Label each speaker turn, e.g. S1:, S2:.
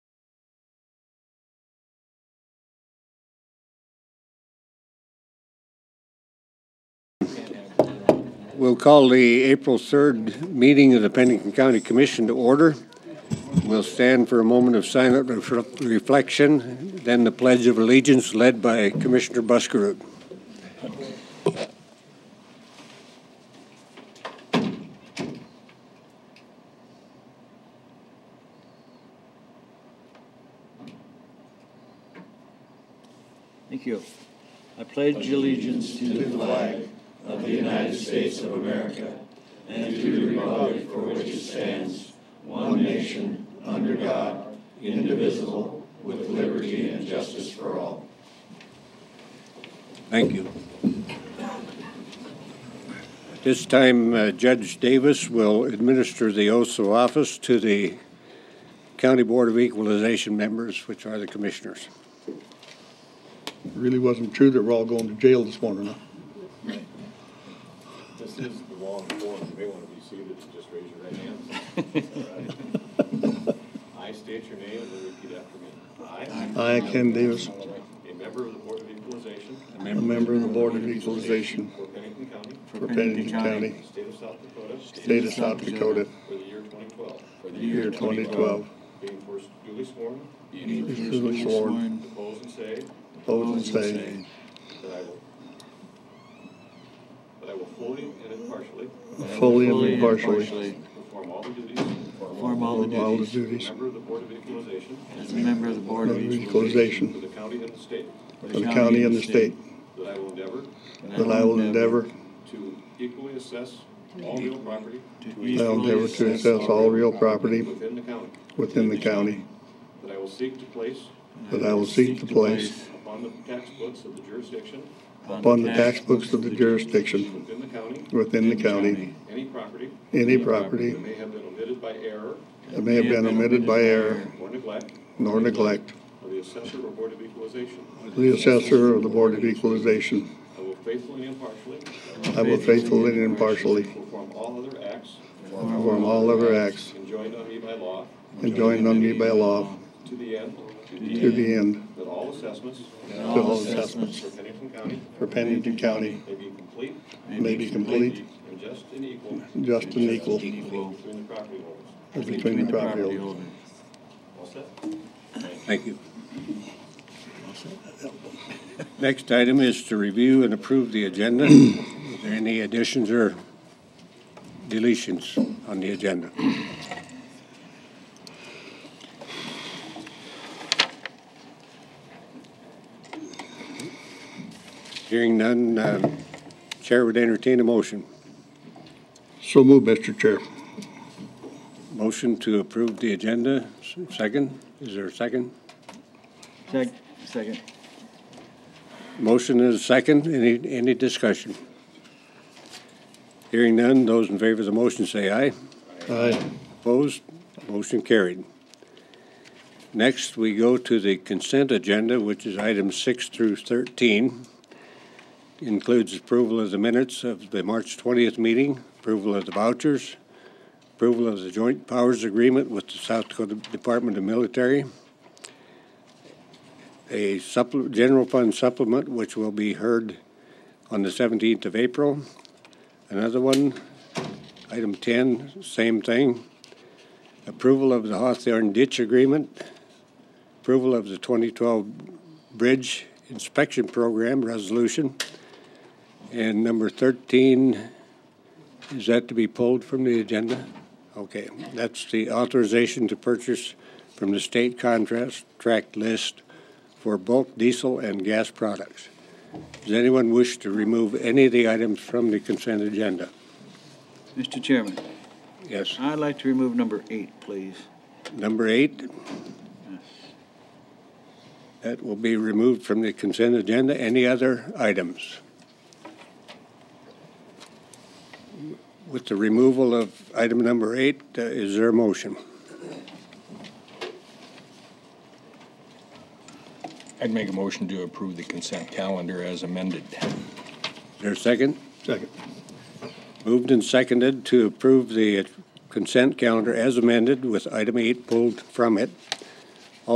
S1: We'll call the April 3rd meeting of the Pennington County Commission to order. We'll stand for a moment of silent ref- reflection, then the Pledge of Allegiance led by Commissioner Buskerud.
S2: Thank you. I pledge allegiance to the flag
S1: Thank you. At this time, uh, Judge Davis will administer the oaths of office to the County Board of Equalization members, which are the commissioners.
S3: really wasn't true that we're all going to jail this morning, huh?
S4: This is the wrong form, you may want to be seated, and just raise your right hand. I state your name and repeat after me. I,
S3: I, Ken Davis,
S4: a member of the Board of Equalization
S3: a member of the Board of Equalization
S4: for Pennington County,
S3: for Pennington County,
S4: State of South Dakota,
S3: State of South Dakota,
S4: for the year 2012,
S3: year 2012.
S4: being first duly sworn,
S3: Duly sworn,
S4: depose and say
S3: opposed and say,
S4: that I will, that I will fully and impartially
S3: fully and impartially,
S4: perform all the duties of
S2: Perform all the
S3: perform all the
S2: duties
S4: a
S3: duties
S4: member of the Board of Equalization
S2: as a member of the Board
S3: of
S2: of
S4: for
S3: equalization
S4: the county and the state,
S3: of the county and the state,
S4: that I will endeavor
S3: that I will endeavor,
S4: To equally assess all real property
S3: I will endeavor to assess all real property
S4: within the county,
S3: within the county,
S4: that I will seek to place
S3: that I will seek to place
S4: upon the tax books of the jurisdiction
S3: upon the tax books of the jurisdiction
S4: within the county
S3: within the county
S4: any property
S3: any
S4: that
S3: property
S4: may have been omitted by error
S3: that may have been omitted by error
S4: or neglect
S3: nor neglect
S4: of the assessor or board of equalization.
S3: the assessor of the Board of Equalization.
S4: I will faithfully and impartially
S3: I will faithfully and impartially
S4: perform all other acts
S3: perform all other acts
S4: enjoined on me by law
S3: enjoined on me by law
S4: to the end
S3: to the end
S4: that all assessments
S3: to all assessments
S4: for Pennington County
S3: for Pennington County
S4: may be complete
S3: may be complete,
S4: and just and equal
S3: just and equal
S2: equal
S4: between the property owners.
S3: between the property owners.
S4: All set?
S1: Thank you. Next item is to review and approve the agenda. Is there any additions or deletions on the agenda? Hearing none, uh, Chair would entertain a motion.
S3: So move, Mr. Chair.
S1: Motion to approve the agenda, S- second? Is there a second?
S2: Sec- Second.
S1: Motion is second. Any, any discussion? Hearing none, those in favor of the motion say aye.
S3: Aye.
S1: Opposed? Motion carried. Next, we go to the consent agenda, which is items six through 13. Includes approval of the minutes of the March 20th meeting, approval of the vouchers, approval of the joint powers agreement with the South Dakota Department of Military, a supple, general fund supplement, which will be heard on the 17th of April. Another one, item 10, same thing, approval of the Hawthorne ditch agreement, approval of the 2012 bridge inspection program resolution, and number 13, is that to be pulled from the agenda? Okay, that's the authorization to purchase from the state contract list for bulk diesel and gas products. Does anyone wish to remove any of the items from the consent agenda?
S2: Mr. Chairman,
S1: Yes.
S2: I'd like to remove number eight, please.
S1: Number eight. That will be removed from the consent agenda. Any other items? With the removal of item number eight, uh, is there a motion?
S5: I'd make a motion to approve the consent calendar as amended.
S1: Is there a second?
S3: Second.
S1: Moved and seconded to approve the consent calendar as amended with item eight pulled from it.